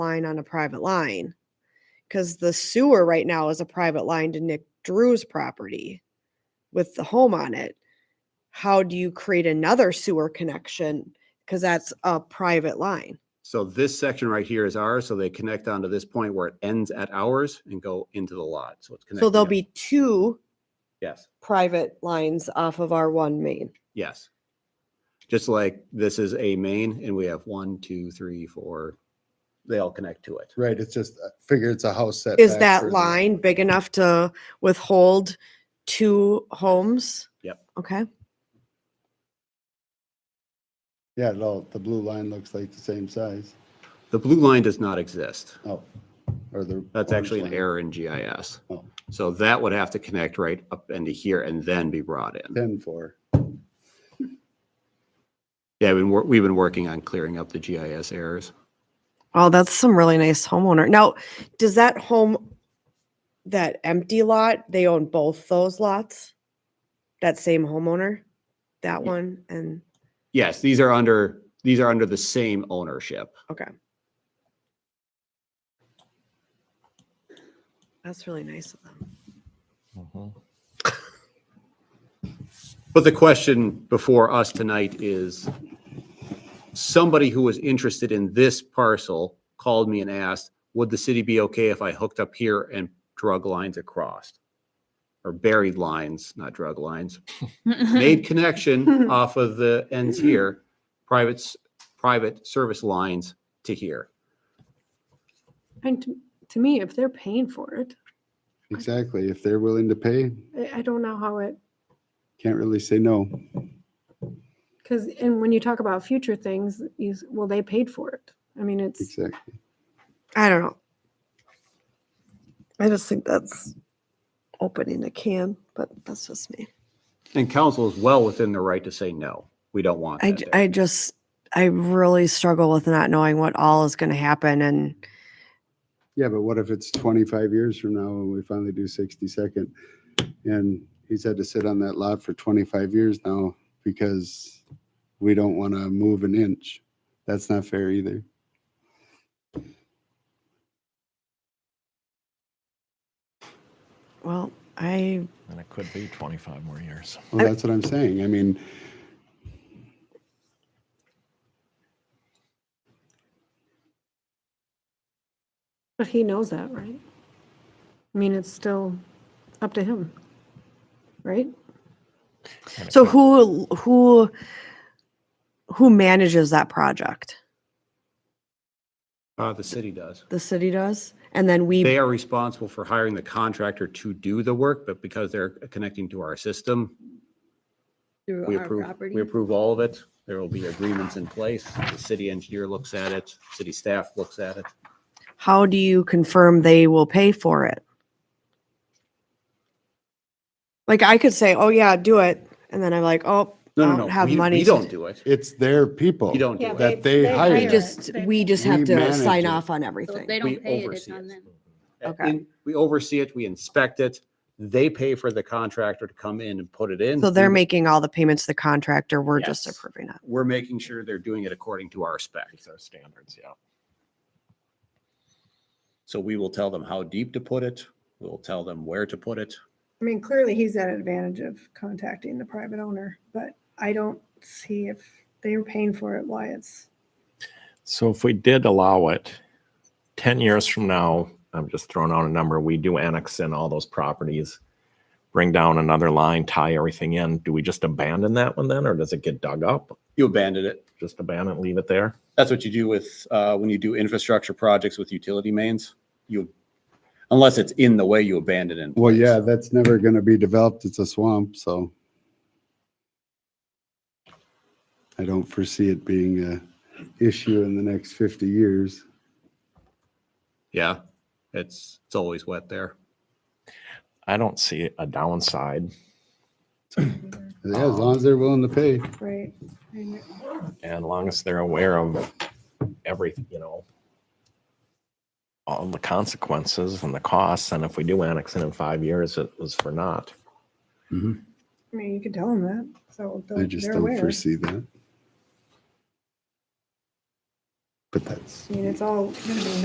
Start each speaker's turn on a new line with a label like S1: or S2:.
S1: line on a private line. Cause the sewer right now is a private line to Nick Drew's property with the home on it. How do you create another sewer connection? Cause that's a private line.
S2: So this section right here is ours, so they connect onto this point where it ends at ours and go into the lot, so it's connected.
S1: So there'll be two
S2: Yes,
S1: private lines off of our one main.
S2: yes. Just like this is a main and we have one, two, three, four, they all connect to it.
S3: Right, it's just, I figure it's a house set.
S1: Is that line big enough to withhold two homes?
S2: Yep.
S1: Okay,
S3: Yeah, no, the blue line looks like the same size.
S2: The blue line does not exist.
S3: Oh, or the.
S2: That's
S3: orange
S2: actually an
S3: line.
S2: error in GIS.
S3: Oh.
S2: So that would have to connect right up into here and then be brought in.
S3: Ten four.
S2: Yeah, we've been, wor- we've been working on clearing up the GIS errors.
S1: oh, that's some really nice homeowner. Now, does that home, that empty lot, they own both those lots? That same homeowner, that one and,
S2: Yes, these are under, these are under the same ownership.
S1: okay. That's really nice of them.
S2: But the question before us tonight is, somebody who was interested in this parcel called me and asked, would the city be okay if I hooked up here and drug lines across? Or buried lines, not drug lines, made connection off of the ends here, private, s- private service lines to here.
S4: And to, to me, if they're paying for it,
S3: Exactly. If they're willing to pay,
S4: I, I don't know how it,
S3: can't really say no.
S4: because, and when you talk about future things, you, s- well, they paid for it. I mean, it's,
S3: Exactly.
S1: I don't know. I just think that's opening a can, but that's just me.
S2: And council is well within their right to say, no, we don't want
S1: I,
S2: that
S1: j-
S2: there."
S1: I just, I really struggle with not knowing what all is going to happen and
S3: Yeah, but what if it's twenty-five years from now and we finally do sixty-second? And he's had to sit on that lot for twenty-five years now because we don't want to move an inch. That's not fair either.
S1: well, I,
S5: And it could be 25 more years.
S3: Well, that's what I'm saying. I mean,
S4: but he knows that, right? I mean, it's still up to him, right?
S5: And it
S1: so
S5: could-
S1: who, who, who manages that project?
S2: Uh, the city does.
S1: The city does? And then we,
S2: They are responsible for hiring the contractor to do the work, but because they're connecting to our system, we approve, we approve all of it. There will be agreements in place. The city engineer looks at it, city staff looks at it.
S1: how do you confirm they will pay for it? Like I could say, oh yeah, do it. And then I'm like, oh, I
S2: No, no, no.
S1: don't have
S2: we-
S1: money.
S2: We
S1: to
S2: don't
S1: do-
S2: do it.
S3: it's their people.
S2: We don't do
S6: Yeah,
S2: it.
S3: That they hire.
S1: We
S3: it.
S1: just, we just
S3: We
S1: have to
S3: manage
S1: sign
S3: it.
S1: off on
S6: So if
S1: everything.
S6: they
S2: We
S6: don't pay it, it's
S2: oversee
S6: on
S2: it.
S6: them.
S1: okay.
S2: And We oversee it, we inspect it. They pay for the contractor to come in and put it in.
S1: So they're
S2: We-
S1: making all the payments to the contractor. We're just
S2: Yes.
S1: approving it.
S2: We're making sure they're doing it according to our specs.
S5: These are standards, yeah.
S2: So we will tell them how deep to put it. We'll tell them where to put it.
S7: I mean, clearly he's at advantage of contacting the private owner, but I don't see if they were paying for it, why it's.
S5: So if we did allow it, 10 years from now, I'm just throwing out a number, we do annex in all those properties, bring down another line, tie everything in. Do we just abandon that one then, or does it get dug up?
S2: You abandon it.
S5: Just abandon, leave it there?
S2: That's what you do with, uh, when you do infrastructure projects with utility mains. You, unless it's in the way, you abandon it. in
S3: Well,
S2: place.
S3: yeah, that's never going to be developed. It's a swamp, so. I don't foresee it being a issue in the next 50 years.
S2: Yeah, it's, it's always wet there.
S5: I don't see a downside.
S3: Yeah, As long as they're willing to pay.
S7: Right.
S5: And as long as they're aware of everything, you know, all the consequences and the costs, and if we do annex in in five years, it was for naught.
S7: I mean, you could tell them that, so
S3: I
S7: they'll-
S3: just
S7: they're
S3: don't
S7: aware.
S3: foresee that. But that's.
S7: I mean, it's all gonna be